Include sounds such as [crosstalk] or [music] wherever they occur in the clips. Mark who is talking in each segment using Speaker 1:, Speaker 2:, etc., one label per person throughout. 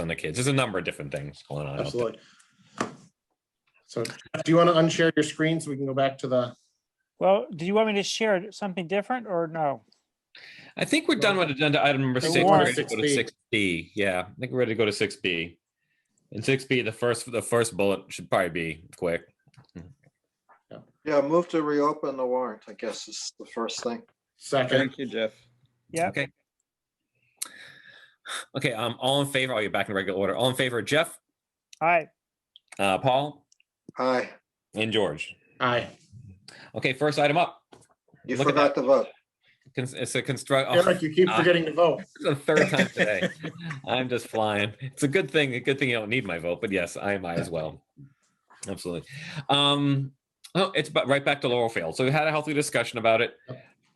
Speaker 1: on the kids. There's a number of different things going on. out there.
Speaker 2: Absolutely. So Jeff, do you want to unshare your screen so we can go back to the,
Speaker 3: Well, do you want me to share something different or no?
Speaker 1: I think we're done with agenda item number
Speaker 2: The
Speaker 1: six. We're
Speaker 3: warrant.
Speaker 1: ready to go to
Speaker 2: 6B.
Speaker 1: six B. Yeah, I think we're ready to go to six B. And six B, the first, the first bullet should probably be quick.
Speaker 4: Yeah, move to reopen the warrant, I guess is the first thing.
Speaker 2: second,
Speaker 5: Thank you, Jeff.
Speaker 3: Yeah,
Speaker 1: Okay. Okay, um, all in favor, I'll get back in regular order. All in favor, Jeff,
Speaker 3: I,
Speaker 1: uh, Paul
Speaker 4: Aye,
Speaker 1: and George.
Speaker 2: aye.
Speaker 1: Okay, first item up.
Speaker 4: you
Speaker 1: Look at
Speaker 4: forgot to vote.
Speaker 1: Cons- It's a construct. oh,
Speaker 2: Eric, you keep
Speaker 1: aye.
Speaker 2: forgetting to vote.
Speaker 1: It's the
Speaker 3: [laughs]
Speaker 1: third time today. I'm just flying. It's a good thing. A good thing you don't need my vote, but yes, I am I as well. Absolutely. Um, oh, it's but right back to Laurel Field. So we had a healthy discussion about it.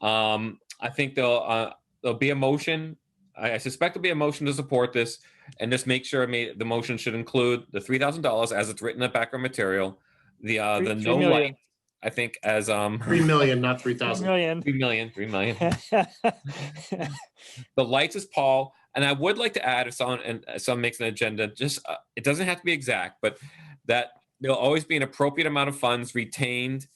Speaker 1: Um, I think there'll uh, there'll be a motion. I, I suspect there'll be a motion to support this, and just make sure I mean the motion should include the three thousand dollars as it's written in the background material. The uh
Speaker 3: Three-
Speaker 1: the
Speaker 3: three
Speaker 1: no
Speaker 3: million.
Speaker 1: light, I think as um [laughs]
Speaker 2: Three million, not three
Speaker 3: three
Speaker 2: thousand.
Speaker 3: million. [laughs]
Speaker 1: three million, three million. The lights is Paul, and I would like to add if someone and uh, someone makes an agenda, just uh, it doesn't have to be exact, but that there'll always be an appropriate amount of funds retained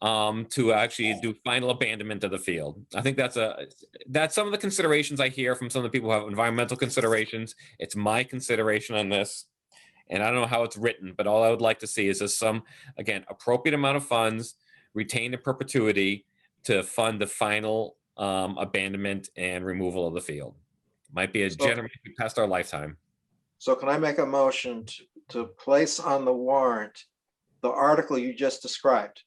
Speaker 1: um, to actually do final abandonment of the field. I think that's a that's some of the considerations I hear from some of the people who have environmental considerations. It's my consideration on this, and I don't know how it's written, but all I would like to see is just some again appropriate amount of funds retained in perpetuity to fund the final um, abandonment and removal of the field. Might be a
Speaker 4: So-
Speaker 1: generation past our lifetime.
Speaker 4: So can I make a motion to, to place on the warrant the article you just described?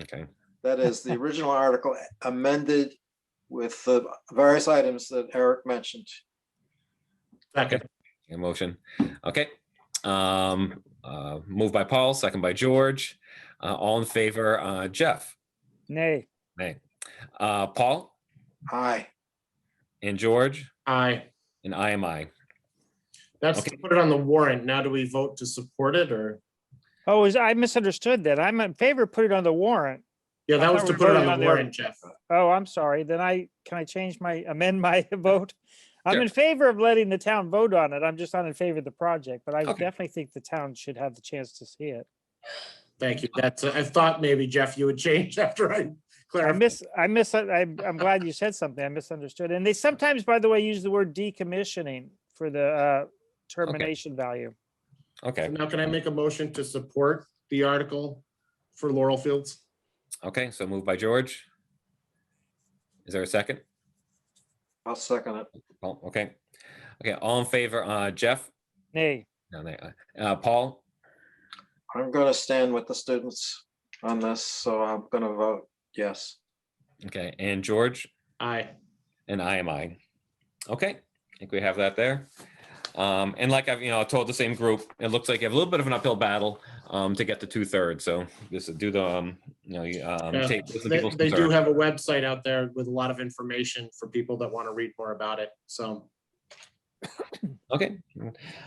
Speaker 1: Okay.
Speaker 4: That is
Speaker 5: [laughs]
Speaker 4: the original article amended with the various items that Eric mentioned.
Speaker 2: Second,
Speaker 1: A motion. Okay. Um, uh, moved by Paul, second by George. Uh, all in favor, uh, Jeff,
Speaker 3: Nay,
Speaker 1: nay. Uh, Paul
Speaker 4: Aye,
Speaker 1: and George
Speaker 2: aye.
Speaker 1: and I am I.
Speaker 2: That's to
Speaker 1: Okay.
Speaker 2: put it on the warrant. Now do we vote to support it or?
Speaker 3: oh, is, I misunderstood that. I'm in favor, of put it on the warrant.
Speaker 2: Yeah,
Speaker 3: I
Speaker 2: that was
Speaker 3: thought
Speaker 2: to
Speaker 3: we
Speaker 2: put it
Speaker 3: voted
Speaker 2: on
Speaker 3: on
Speaker 2: the
Speaker 3: the-
Speaker 2: warrant, Jeff.
Speaker 3: Oh, I'm sorry. Then I, can I change my, amend my [laughs] vote? I'm
Speaker 1: Sure.
Speaker 3: in favor of letting the town vote on it. I'm just not in favor of the project, but I
Speaker 1: Okay.
Speaker 3: definitely think the town should have the chance to see it.
Speaker 2: Thank you. That's, I thought maybe Jeff, you would [laughs] change after I
Speaker 3: I
Speaker 2: clarified.
Speaker 3: miss, I miss, I, I'm glad you said something. I misunderstood. And they sometimes, by the way, use the word decommissioning for the uh, termination value.
Speaker 1: Okay.
Speaker 2: Now can I make a motion to support the article for Laurel Fields?
Speaker 1: Okay. So moved by George. Is there a second?
Speaker 4: I'll second it.
Speaker 1: Paul, okay. Okay. All in favor, uh, Jeff,
Speaker 3: Nay,
Speaker 1: no, nay, uh, Paul
Speaker 4: I'm gonna stand with the students on this, so I'm gonna vote yes.
Speaker 1: Okay. And George?
Speaker 2: Aye.
Speaker 1: And I am I. Okay, I think we have that there. Um, and like I've, you know, told the same group, it looks like you have a little bit of an uphill battle um, to get to two thirds. So just do the, um, you know, you, um,
Speaker 2: Yeah,
Speaker 1: take. listen to
Speaker 2: They,
Speaker 1: people's
Speaker 2: they do
Speaker 1: concerns.
Speaker 2: have a website out there with a lot of information for people that want to read more about it. So
Speaker 1: Okay.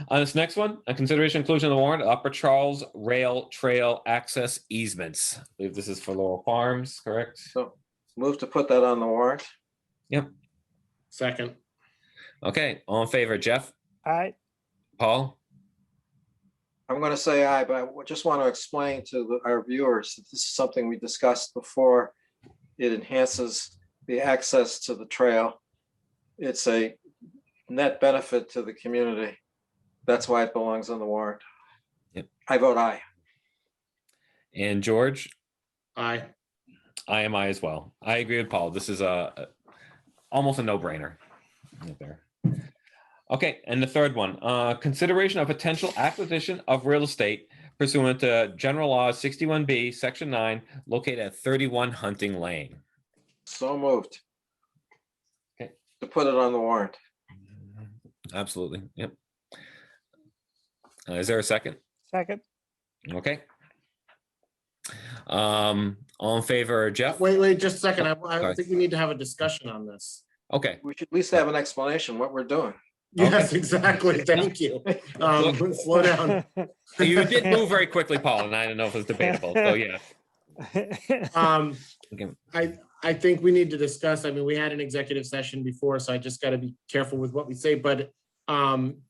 Speaker 1: On this next one, a consideration inclusion of the warrant, Upper Charles Rail Trail Access Easements. I believe this is for Laurel Farms, correct?
Speaker 4: So move to put that on the warrant.
Speaker 2: second,
Speaker 1: Okay, all in favor, Jeff,
Speaker 3: I,
Speaker 1: Paul?
Speaker 4: I'm going to say aye, but I w- just want to explain to the- our viewers that this is something we discussed before. It enhances the access to the trail. It's a net benefit to the community. That's why it belongs on the warrant.
Speaker 1: Yep.
Speaker 4: I vote aye.
Speaker 1: And George?
Speaker 2: aye.
Speaker 1: I am I as well. I agree with Paul. This is a a- almost a no-brainer. right there. Okay, and the third one, uh, consideration of potential acquisition of real estate pursuant to General Law sixty-one B, section nine, located at thirty-one Hunting Lane.
Speaker 4: So moved.
Speaker 1: Okay.
Speaker 4: To put it on the warrant.
Speaker 1: Absolutely, yep. Uh, Is there a second?
Speaker 3: second,
Speaker 1: Okay. Um, all in favor, Jeff?
Speaker 2: Wait, wait, just a second. I, I
Speaker 1: Sorry.
Speaker 2: think we need to have a discussion on this.
Speaker 1: Okay,
Speaker 4: We should at least have an explanation what we're doing.
Speaker 1: Okay. [laughs]
Speaker 2: Yes, exactly. Thank you. Um, [laughs] slow down.
Speaker 3: [laughs]
Speaker 1: you did move very quickly, Paul, and I don't know if it's debatable, so yeah.
Speaker 2: Um,
Speaker 1: Okay.
Speaker 2: I, I think we need to discuss, I mean, we had an executive session before, so I just gotta be careful with what we say, but um,